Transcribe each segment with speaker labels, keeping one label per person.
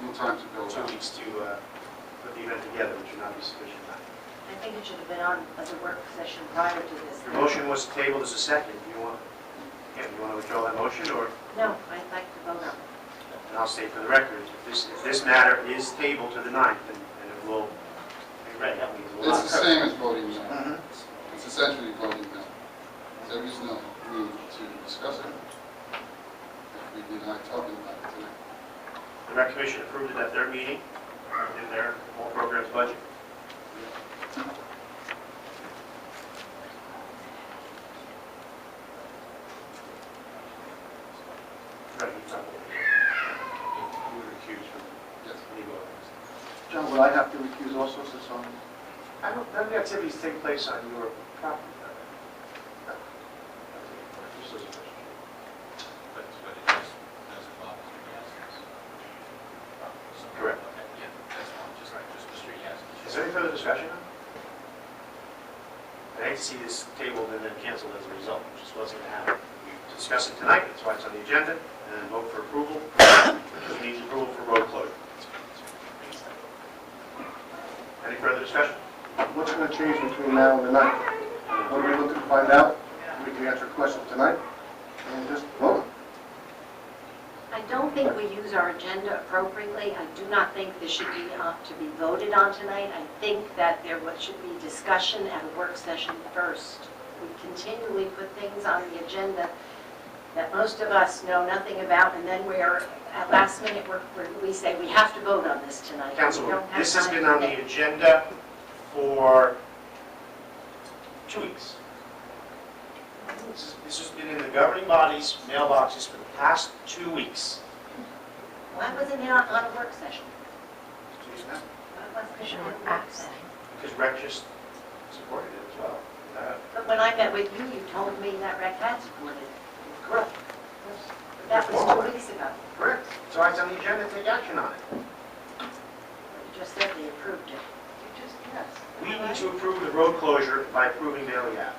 Speaker 1: no time to build
Speaker 2: two
Speaker 1: up.
Speaker 2: weeks to uh, put the event together, which would not be sufficient time.
Speaker 3: I think it should have been on as a work session prior to this.
Speaker 2: Your motion was tabled as a second. You want, yeah, you want to withdraw that motion, or,
Speaker 3: No, I'd like to vote on it.
Speaker 2: and I'll state for the record, if this, if this matter is tabled to the ninth, then then it will be read, that means it will
Speaker 1: It's
Speaker 2: not.
Speaker 1: the same as voting now.
Speaker 2: Mhm.
Speaker 1: It's essentially voting now. There is no need to discuss it if we did not talk about it tonight.
Speaker 2: The Rec Commission approved it at their meeting, in their whole program's budget. Right, you talk. You were accused from
Speaker 1: Yes.
Speaker 2: legal.
Speaker 4: John, will I have to recuse also since I'm...
Speaker 2: I don't, none of the activities take place on your property. Just as a question.
Speaker 5: But but it does, does involve Mr. Yasin's. So-
Speaker 2: Correct.
Speaker 5: Okay, Yeah, that's fine, just, just Mr. Yasin.
Speaker 2: Is there any further discussion? I hate to see this tabled and then canceled as a result, which just wasn't going to happen. We discussed it tonight, that's why it's on the agenda, and then vote for approval, which needs approval for road closure. Any further discussion?
Speaker 4: What's going to change between now and the night? What are we looking to find out? We can answer questions tonight and just vote.
Speaker 3: I don't think we use our agenda appropriately. I do not think this should be uh, to be voted on tonight. I think that there was- should be discussion at a work session first. We continually put things on the agenda that most of us know nothing about, and then we're, at last minute, we're- we're- we say, we have to vote on this tonight. We
Speaker 2: Councilwoman,
Speaker 3: don't have
Speaker 2: this has
Speaker 3: time
Speaker 2: been
Speaker 3: to
Speaker 2: on
Speaker 3: think.
Speaker 2: the agenda for two weeks. This is- This has been in the governing body's mailboxes for the past two weeks.
Speaker 3: Why wasn't it on on a work session?
Speaker 2: Excuse me?
Speaker 3: Why wasn't it on a work session?
Speaker 2: Because Rec just supported it as well. Uh,
Speaker 3: But when I met with you, you told me that rec had supported it.
Speaker 2: Correct.
Speaker 3: That was two weeks ago.
Speaker 2: Correct. So it's on the agenda, take action on it.
Speaker 3: You just said they approved it. You just, yes.
Speaker 2: We need to approve the road closure by approving Bailey Ave.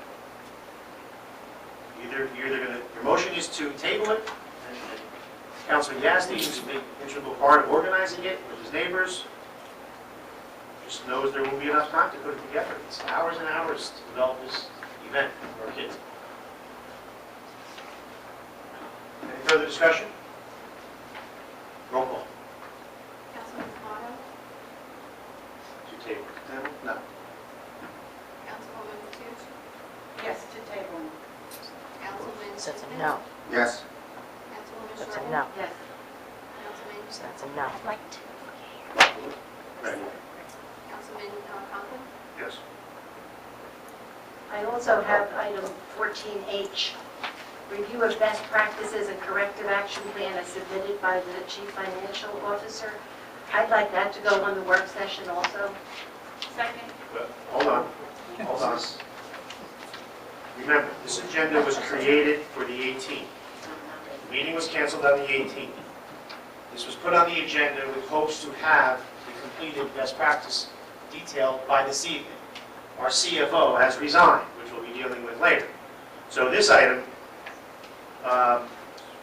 Speaker 2: Either, you're either gonna, your motion is to table it, and and Councilman Yasti, who's a big integral part of organizing it with his neighbors, just knows there will be enough time to put it together. It's hours and hours to develop this event for our kids. Any further discussion? Roll call.
Speaker 6: Councilman Demotta,
Speaker 2: To table.
Speaker 4: No.
Speaker 6: Councilwoman Toots,
Speaker 3: Yes, to table.
Speaker 6: Councilman
Speaker 7: So it's a
Speaker 6: Smith,
Speaker 7: no.
Speaker 4: Yes.
Speaker 6: Councilwoman
Speaker 7: So it's a
Speaker 6: Shorten,
Speaker 7: no.
Speaker 3: Yes.
Speaker 6: Councilman,
Speaker 7: So it's a no.
Speaker 2: Ready?
Speaker 6: Councilman uh, Conklin,
Speaker 2: Yes.
Speaker 3: I also have item 14H, review of best practices and corrective action plan as submitted by the chief financial officer. I'd like that to go on the work session also. Second.
Speaker 2: But, hold on, hold on. Remember, this agenda was created for the 18th. The meeting was canceled on the 18th. This was put on the agenda with hopes to have the completed best practice detailed by this evening. Our CFO has resigned, which we'll be dealing with later. So this item um,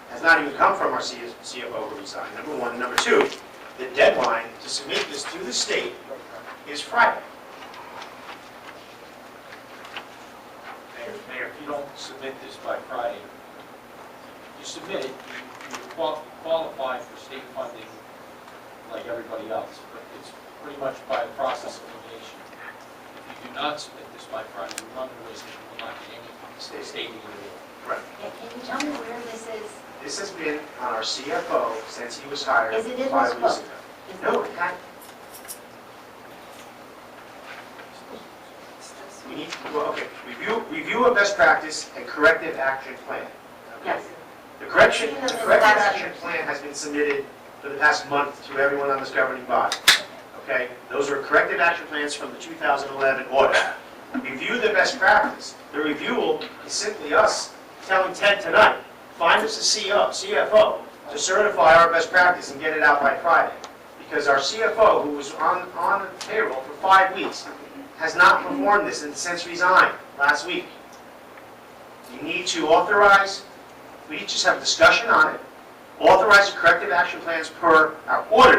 Speaker 2: has not even come from our CS CFO who resigned, number one. Number two, the deadline to submit this to the state is Friday.
Speaker 5: Mayor, Mayor, if you don't submit this by Friday, you submit it, you you qual- qualify for state funding like everybody else, but it's pretty much by process of elimination. If you do not submit this by Friday, you run the risk that you will not get any state aid at all.
Speaker 3: Yeah, Can you tell me where this is?
Speaker 2: This has been on our CFO since he was hired
Speaker 3: Is it in
Speaker 2: five
Speaker 3: this
Speaker 2: weeks
Speaker 3: book?
Speaker 2: ago.
Speaker 3: Is
Speaker 2: No,
Speaker 3: it-
Speaker 2: it had- we need, well, okay, review, review of best practice and corrective action plan.
Speaker 3: Yes.
Speaker 2: The correction,
Speaker 3: Review
Speaker 2: the
Speaker 3: of best
Speaker 2: corrective
Speaker 3: practice.
Speaker 2: action plan has been submitted for the past month to everyone on this governing body. Okay, those are corrective action plans from the 2011 audit. Review the best practice. The review is simply us telling Ted tonight, find us a CO CFO to certify our best practice and get it out by Friday. Because our CFO, who was on, on payroll for five weeks, has not performed this and since resigned last week. You need to authorize, we just have a discussion on it, authorize the corrective action plans per our auditor.